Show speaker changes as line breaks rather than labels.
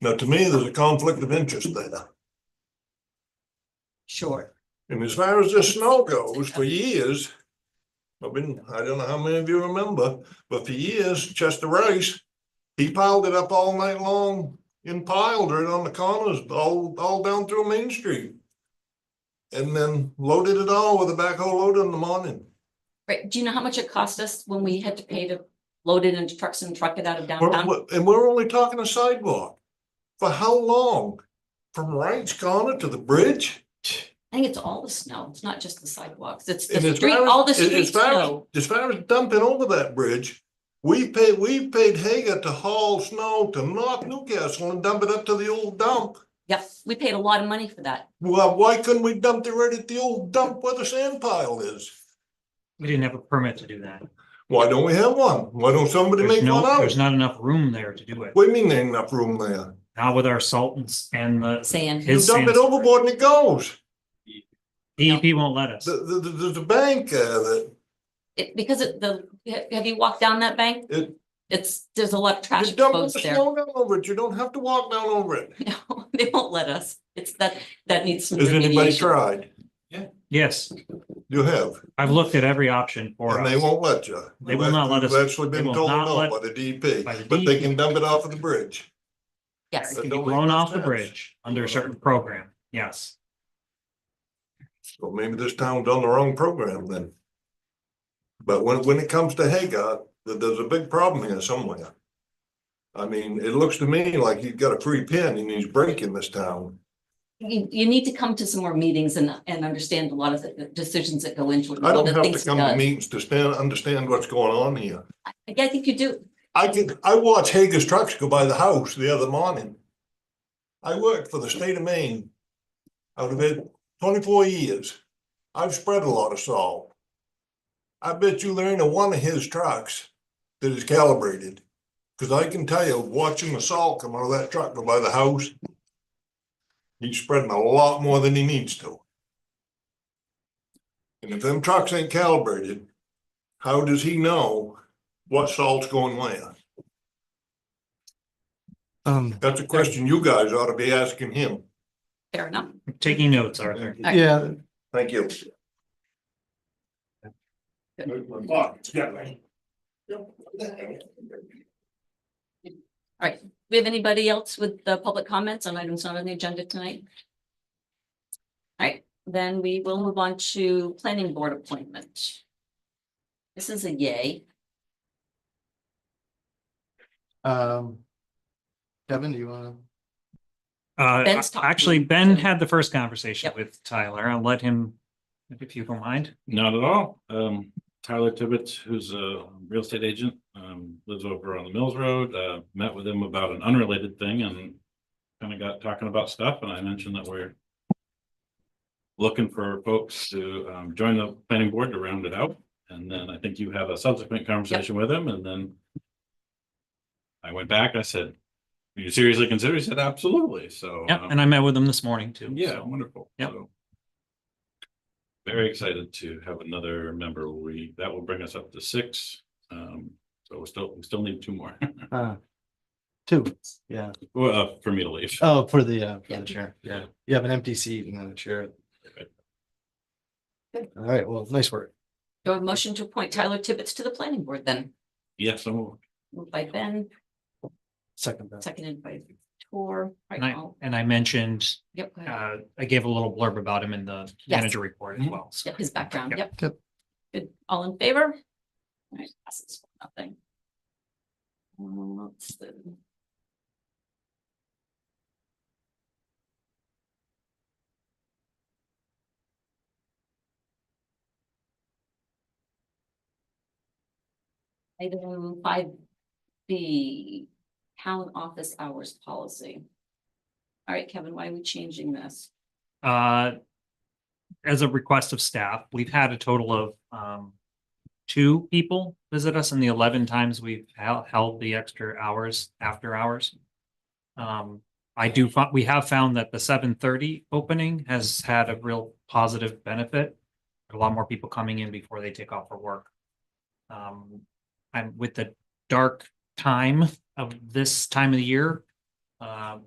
Now, to me, there's a conflict of interest there.
Sure.
And as far as the snow goes, for years, I've been, I don't know how many of you remember, but for years, Chester Rice, he piled it up all night long and piled it on the corners, all, all down through Main Street. And then loaded it all with a backhoe load in the morning.
Right, do you know how much it cost us when we had to pay to load it into trucks and truck it out of
We're-
downtown?
we're- And we're only talking a sidewalk. For how long? From Rice Corner to the bridge?
I think it's all the snow, it's not just the sidewalks, it's
And
the
as
street,
far as-
all the
as- as
street
far as-
snow.
As far as dumping over that bridge, we paid, we paid Hager to haul snow to North Newcastle and dump it up to the old dump.
Yep, we paid a lot of money for that.
Well, why couldn't we dump it right at the old dump where the sand pile is?
We didn't have a permit to do that.
Why don't we have one? Why don't somebody
There's
make
no-
one out?
There's not enough room there to do it.
What do you mean there ain't enough room there?
Not with our sultans and the
Sand,
You
His
dump it
sand's-
overboard and it goes.
DEP E won't let us.
The, the, the, there's a bank, uh, that,
it, because it, the, ha- have you walked down that bank?
It-
It's, there's a lot of trash
you dump the
exposed there.
snow down over it. You don't have to walk down over it.
No, they won't let us, it's that, that needs some
Has anybody
remediation.
tried?
Yes,
You have.
I've looked at every option for
And they
us.
won't let you.
They will not let us-
You've actually
they
been
will
told
not
no
let-
by the
by the
DP, but they
DEP.
can dump it off of the bridge.
Yes,
It can be
Don't make
blown
no
off the
sense.
bridge under a certain program. Yes.
So maybe this town's on the wrong program then. But when, when it comes to Hagot, th- there's a big problem here somewhere. I mean, it looks to me like he's got a free pin and he's breaking this town.
you, you need to come to some more meetings and, and understand a lot of the- the decisions that go into it. and
I
all
don't
the
have to
things it
come to
does.
meetings to stand, understand what's going on here.
Yeah, I think you do,
I can, I watched Hager's trucks go by the house the other morning. I worked for the state of Maine. Out of it, twenty-four years. I've spread a lot of salt. I bet you there ain't a one of his trucks that is calibrated. Cause I can tell you, watching the salt come out of that truck go by the house. He's spreading a lot more than he needs to. And if them trucks ain't calibrated, how does he know what salt's going where?
Um,
That's a question you guys ought to be asking him.
fair enough.
I'm Taking notes, Arthur.
All right.
yeah,
Thank you.
We have anybody else with the public comments on items not on the agenda tonight? All right, then we will move on to planning board appointment. This is a yay.
um. Kevin, do you wanna?
Uh,
Ben's talking.
actually, Ben had the first conversation
Yep.
with Tyler. I'll let him, if you don't mind.
Not at all. Um, Tyler Tibbetts, who's a real estate agent, um, lives over on the Mills Road, uh, met with him about an unrelated thing and kind of got talking about stuff and I mentioned that we're looking for folks to, um, join the planning board to round it out. And then I think you had a subsequent conversation with him and then I went back, I said, "Do you seriously consider? He said, absolutely. So.
Yep,
um,
and I met with him this morning too.
yeah,
so.
wonderful.
Yep.
So, Very excited to have another member. We, that will bring us up to six. Um, so we still, we still need two more,
Uh, two, yeah.
well, uh, for me to leave.
Oh, for the, uh, for
Yeah.
the chair, yeah. You have an empty seat and then a chair. All right, well, nice work.
Do I have a motion to appoint Tyler Tibbetts to the planning board then?
Yes, I'm,
Moved by Ben,
Second. best.
seconded by Tor. Right
And I,
all-
and I mentioned,
Yep, go ahead.
uh, I gave a little blurb about him in the
Yes.
manager report as
Mm-hmm.
Mhm.
well. so.
Yep, his background,
Yep.
yep.
Yep.
Good, all in favor? All right, passes for nothing. Um, let's see. Item five B, town office hours policy. All right, Kevin, why are we changing this?
uh, as a request of staff, we've had a total of, um, two people visit us and the eleven times we've held, held the extra hours, after hours. Um, I do, fi- we have found that the seven thirty opening has had a real positive benefit. A lot more people coming in before they take off for work. Um, I'm with the dark time of this time of the year. Um,